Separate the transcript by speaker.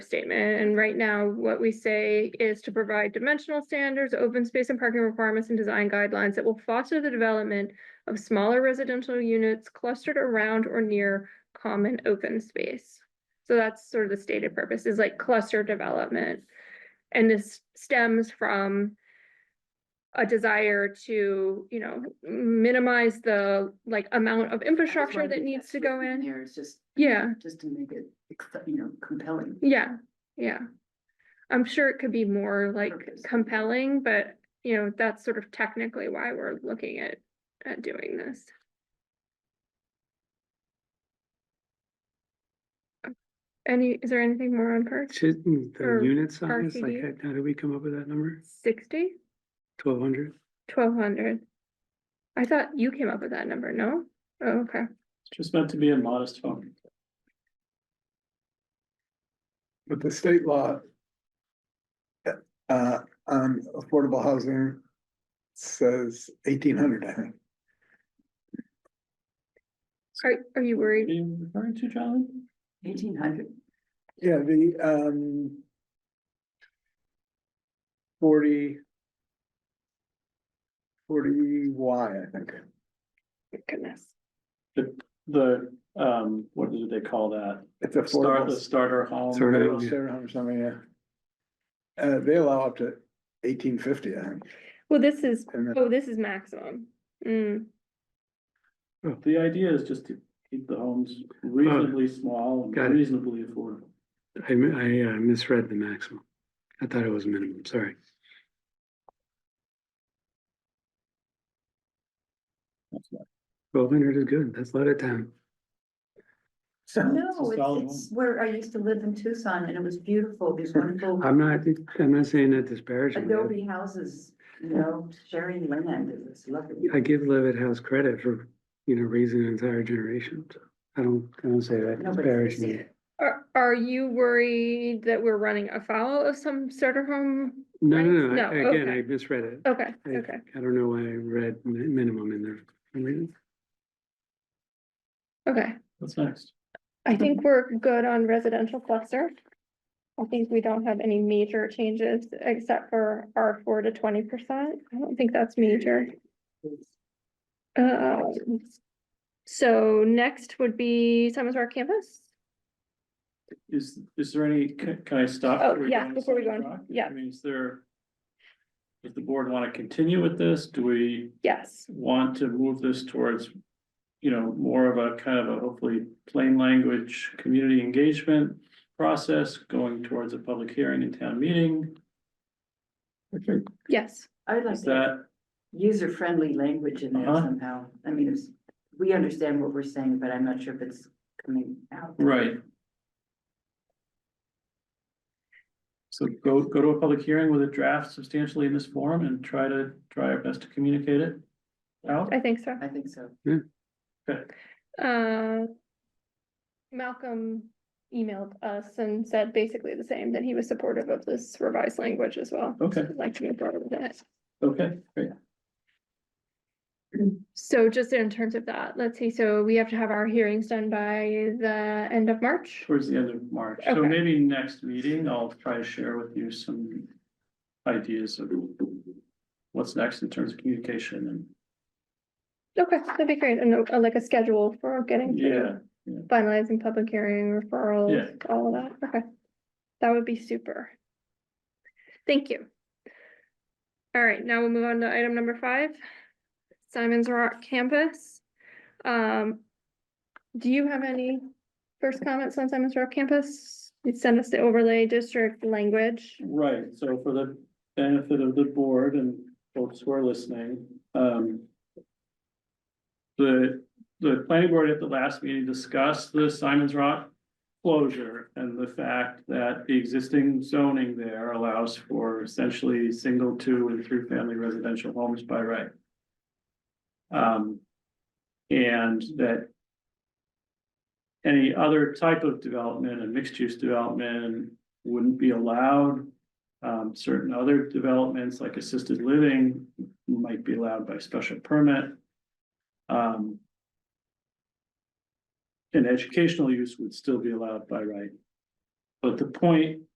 Speaker 1: statement, and right now what we say is to provide dimensional standards, open space and parking requirements and design guidelines that will foster the development of smaller residential units clustered around or near common open space. So that's sort of the stated purpose is like cluster development. And this stems from a desire to, you know, minimize the like amount of infrastructure that needs to go in.
Speaker 2: Here, it's just.
Speaker 1: Yeah.
Speaker 2: Just to make it, exce- you know, compelling.
Speaker 1: Yeah, yeah. I'm sure it could be more like
Speaker 2: Purpose.
Speaker 1: compelling, but you know, that's sort of technically why we're looking at, at doing this. Any, is there anything more on perch?
Speaker 3: Should hmm, the
Speaker 1: Or
Speaker 3: unit size, like,
Speaker 1: RCD?
Speaker 3: how- how did we come up with that number?
Speaker 1: Sixty,
Speaker 3: Twelve hundred?
Speaker 1: twelve hundred? I thought you came up with that number, no? Oh, okay.
Speaker 4: Just meant to be a modest phone.
Speaker 5: But the state law. Uh, on affordable housing. Says eighteen hundred, I think.
Speaker 1: Are, are you
Speaker 4: Are
Speaker 1: worried?
Speaker 4: you referring to John?
Speaker 2: Eighteen hundred,
Speaker 5: Yeah, the, um. Forty. Forty Y, I think.
Speaker 1: Goodness.
Speaker 4: The, um, what do they call that?
Speaker 5: It's
Speaker 4: Start,
Speaker 5: affordable.
Speaker 4: the starter home.
Speaker 3: Sort of.
Speaker 4: house.
Speaker 5: Sarah Home or something, yeah. Uh, they allow up to eighteen fifty, I think.
Speaker 1: Well, this is,
Speaker 5: and then-
Speaker 1: oh, this is maximum. Mm,
Speaker 4: The idea is just to keep the homes reasonably small
Speaker 3: got
Speaker 4: and
Speaker 3: it.
Speaker 4: reasonably affordable.
Speaker 3: I, mi- I uh, misread the maximum. I thought it was minimum, sorry.
Speaker 4: That's right.
Speaker 3: Twelve hundred is good, let's let it down.
Speaker 2: no,
Speaker 4: a solid
Speaker 2: it's, it's where I used to live in Tucson and it was beautiful, these wonderful
Speaker 3: I'm not, I'm not saying that disparagingly.
Speaker 2: adobe houses, you know, sharing land, it was lovely.
Speaker 3: I give Levitt House credit for, you know, raising an entire generation. so I don't, I don't say that
Speaker 2: Nobody says
Speaker 3: disparagingly.
Speaker 2: it.
Speaker 1: Are, are you worried that we're running afoul of some starter home?
Speaker 3: No,
Speaker 1: Right?
Speaker 3: no,
Speaker 1: No,
Speaker 3: no, I- again,
Speaker 1: okay.
Speaker 3: I misread it.
Speaker 1: Okay,
Speaker 3: I-
Speaker 1: okay.
Speaker 3: I don't know why I read mi- minimum in there. for some reason.
Speaker 1: Okay,
Speaker 4: What's next?
Speaker 1: I think we're good on residential cluster. I think we don't have any major changes except for R four to twenty percent. I don't think that's major. Uh, so next would be Simon's Rock campus.
Speaker 4: Is, is there any, can, can I stop?
Speaker 1: Oh,
Speaker 4: before we go
Speaker 1: yeah,
Speaker 4: on
Speaker 1: before we go
Speaker 4: Sunny
Speaker 1: on,
Speaker 4: Rock?
Speaker 1: yeah.
Speaker 4: I mean, is there? Does the board want to continue with this? Do we
Speaker 1: Yes,
Speaker 4: want to move this towards, you know, more of a kind of a hopefully plain language, community engagement process going towards a public hearing and town meeting?
Speaker 1: yes.
Speaker 2: I would like
Speaker 4: Is
Speaker 2: that
Speaker 4: that,
Speaker 2: user-friendly language in there
Speaker 4: Uh-huh.
Speaker 2: somehow. I mean, it's, we understand what we're saying, but I'm not sure if it's coming out.
Speaker 4: right? So go, go to a public hearing with a draft substantially in this form and try to, try our best to communicate it out.
Speaker 1: I think so.
Speaker 2: I think so.
Speaker 1: Uh, Malcolm emailed us and said basically the same, that he was supportive of this revised language as well.
Speaker 4: Okay,
Speaker 1: I'd like to move forward with it.
Speaker 4: okay, great.
Speaker 1: So just in terms of that, let's see, so we have to have our hearings done by the end of March.
Speaker 4: Towards the end of March. So
Speaker 1: Okay.
Speaker 4: maybe next meeting, I'll try to share with you some ideas of what's next in terms of communication and
Speaker 1: Okay, that'd be great, and uh, like a schedule for getting
Speaker 4: Yeah,
Speaker 1: through finalizing public hearing referrals, all of that, okay. That would be super. Thank you. All right, now we'll move on to item number five. Simon's Rock Campus. Um, do you have any first comments on Simon's Rock Campus? You sent us the overlay district language.
Speaker 4: right, so for the benefit of the board and folks who are listening, um. The, the planning board at the last meeting discussed the Simon's Rock closure and the fact that the existing zoning there allows for essentially single, two, and three-family residential homes by right. Um, and that any other type of development and mixed-use development wouldn't be allowed. Um, certain other developments like assisted living might be allowed by special permit. Um, and educational use would still be allowed by right. But the point